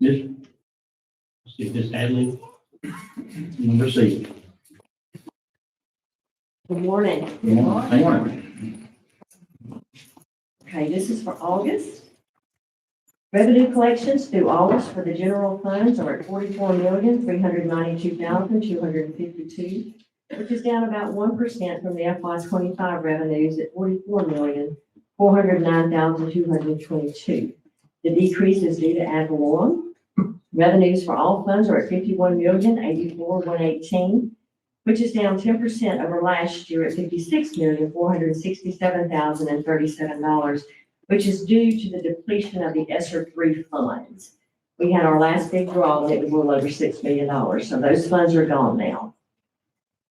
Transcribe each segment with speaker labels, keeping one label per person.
Speaker 1: Miss, let's see, Miss Hadley, number C.
Speaker 2: Good morning.
Speaker 1: Good morning.
Speaker 2: Okay, this is for August. Revenue collections through August for the general funds are at forty-four million, three hundred ninety-two thousand, two hundred and fifty-two, which is down about one percent from the FY twenty-five revenues at forty-four million, four hundred nine thousand, two hundred twenty-two. The decrease is due to ad valorem. Revenues for all funds are at fifty-one million, eighty-four, one eighteen, which is down ten percent over last year at fifty-six million, four hundred sixty-seven thousand and thirty-seven dollars, which is due to the depletion of the ESSER three funds. We had our last big draw, and it was a little over six million dollars, so those funds are gone now.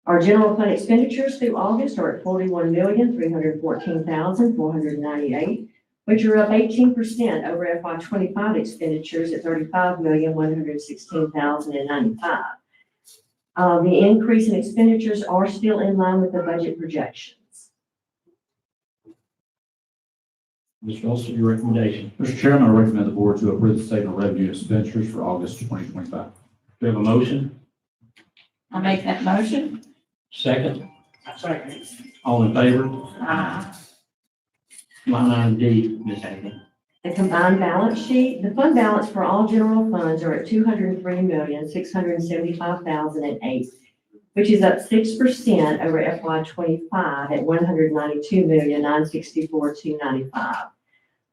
Speaker 2: Our general fund expenditures through August are at forty-one million, three hundred fourteen thousand, four hundred ninety-eight, which are up eighteen percent over FY twenty-five expenditures at thirty-five million, one hundred sixteen thousand and ninety-five. Uh, the increase in expenditures are still in line with the budget projections.
Speaker 1: Ms. Russell, your recommendation.
Speaker 3: Mr. Chairman, I recommend the board to approve the statement of revenue expenditures for August 2025.
Speaker 1: Do we have a motion?
Speaker 4: I make that motion.
Speaker 1: Second? All in favor?
Speaker 4: Aye.
Speaker 1: Line item D, Ms. Hadley.
Speaker 2: The combined balance sheet, the fund balance for all general funds are at two hundred and three million, six hundred and seventy-five thousand and eight, which is up six percent over FY twenty-five at one hundred ninety-two million, nine sixty-four, two ninety-five.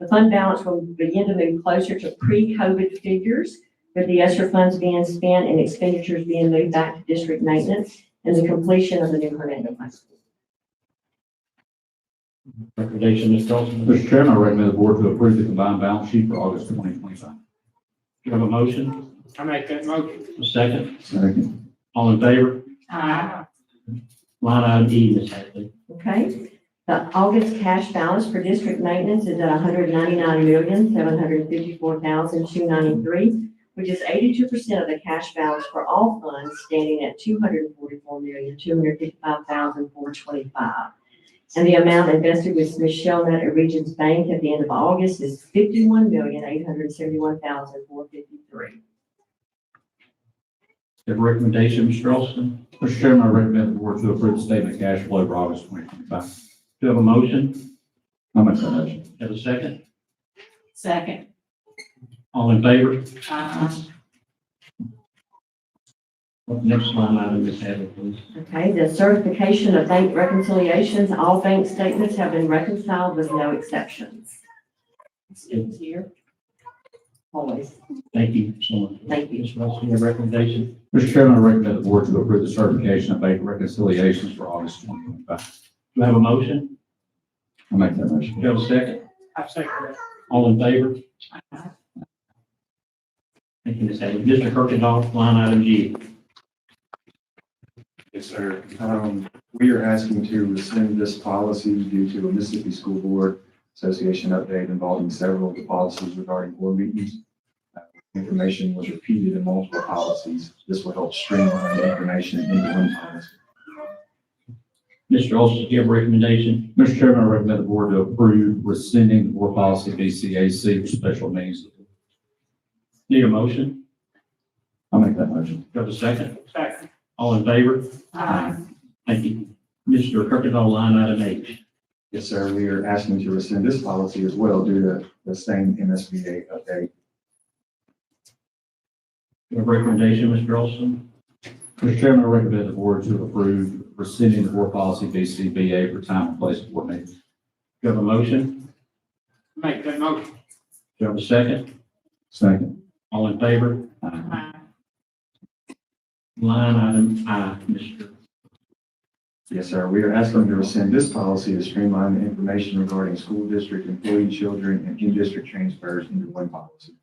Speaker 2: The fund balance will begin to move closer to pre-COVID figures, with the ESSER funds being spent and expenditures being moved back to district maintenance and the completion of the new Hernando High School.
Speaker 1: Recommendation, Ms. Dawson. Do
Speaker 3: Mr. Chairman, I recommend the board to approve the combined balance sheet for August 2025.
Speaker 1: we have a motion?
Speaker 5: I make that motion.
Speaker 1: A Second?
Speaker 3: Second.
Speaker 1: All in favor?
Speaker 4: Aye.
Speaker 1: Line item E, Ms. Hadley.
Speaker 2: Okay, the August cash balance for district maintenance is at 199,754,293, which is eighty-two percent of the cash balance for all funds, standing at 244,255,425, And the amount invested with Smith Shellnut at Regions Bank at the end of August is 51,871,453.
Speaker 1: Do you have a recommendation, Ms. Dawson?
Speaker 3: Mr. Chairman, I recommend the board to approve the statement of cash flow for August 2025.
Speaker 1: Do you have a motion?
Speaker 3: I make that motion.
Speaker 1: Do you Have a second?
Speaker 4: Second.
Speaker 1: All in favor?
Speaker 4: Aye.
Speaker 1: Next line item, Ms. Hadley, please.
Speaker 2: Okay, the certification of bank reconciliations, all bank statements have been reconciled with no exceptions,
Speaker 4: Students here.
Speaker 2: always.
Speaker 1: Thank you so much.
Speaker 2: Thank you.
Speaker 1: Ms. Russell, your recommendation.
Speaker 3: Mr. Chairman, I recommend the board to approve the certification of bank reconciliations for August 2025.
Speaker 1: Do you have a motion?
Speaker 3: I make that
Speaker 1: Do
Speaker 3: motion.
Speaker 1: you have a second?
Speaker 5: I second
Speaker 1: All in favor?
Speaker 4: Aye.
Speaker 1: Thank you, Ms. Hadley. Mr. Kirkendall, line item G.
Speaker 6: Yes, sir. Um, we are asking to rescind this policy due to a Mississippi School Board Association update involving several of the policies regarding board meetings. Uh, Information was repeated in multiple policies. This will help streamline the information into one policy.
Speaker 1: Mr. Olson, do you have a recommendation?
Speaker 3: Mr. Chairman, I recommend the board to approve rescinding the board policy BCAC for special meetings.
Speaker 1: Need a motion?
Speaker 3: I make that motion.
Speaker 1: Do you have a second?
Speaker 5: it. Second.
Speaker 1: All in favor?
Speaker 4: Aye.
Speaker 1: Thank you. Mr. Kirkendall, line item H.
Speaker 6: Yes, sir. We are asking to rescind this policy as well due to the same MSBA update.
Speaker 1: Do you have a recommendation, Mr. Olson?
Speaker 3: Mr. Chairman, I recommend the board to approve rescinding the board policy BCBA for time and place of board meetings.
Speaker 1: Do you have a motion?
Speaker 5: Make that motion.
Speaker 1: Do you have a second?
Speaker 3: Second.
Speaker 1: All in favor?
Speaker 6: Uh,
Speaker 4: Aye.
Speaker 1: Line item I, Mr.
Speaker 6: Yes, sir. We are asking to rescind this policy to streamline the information regarding school district employee children and in-district transfers into one policy.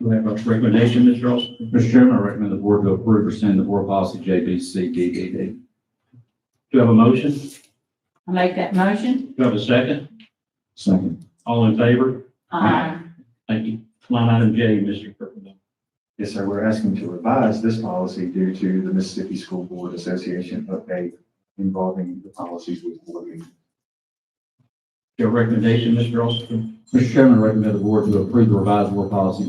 Speaker 1: Do we have a recommendation, Mr. Olson?
Speaker 3: Mr. Chairman, I recommend the board to approve rescinding the board policy JBCDDD.
Speaker 1: Do you have a motion? Do
Speaker 4: I make that motion.
Speaker 1: you have a second?
Speaker 3: Second.
Speaker 1: All in favor?
Speaker 4: Aye.
Speaker 1: Thank you. Line item J, Mr. Kirkendall.
Speaker 6: Yes, sir. We're asking to revise this policy due to the Mississippi School Board Association update involving the policies with board meetings.
Speaker 1: Your recommendation, Mr. Olson?
Speaker 3: Mr. Chairman, I recommend the board to approve the revised board policy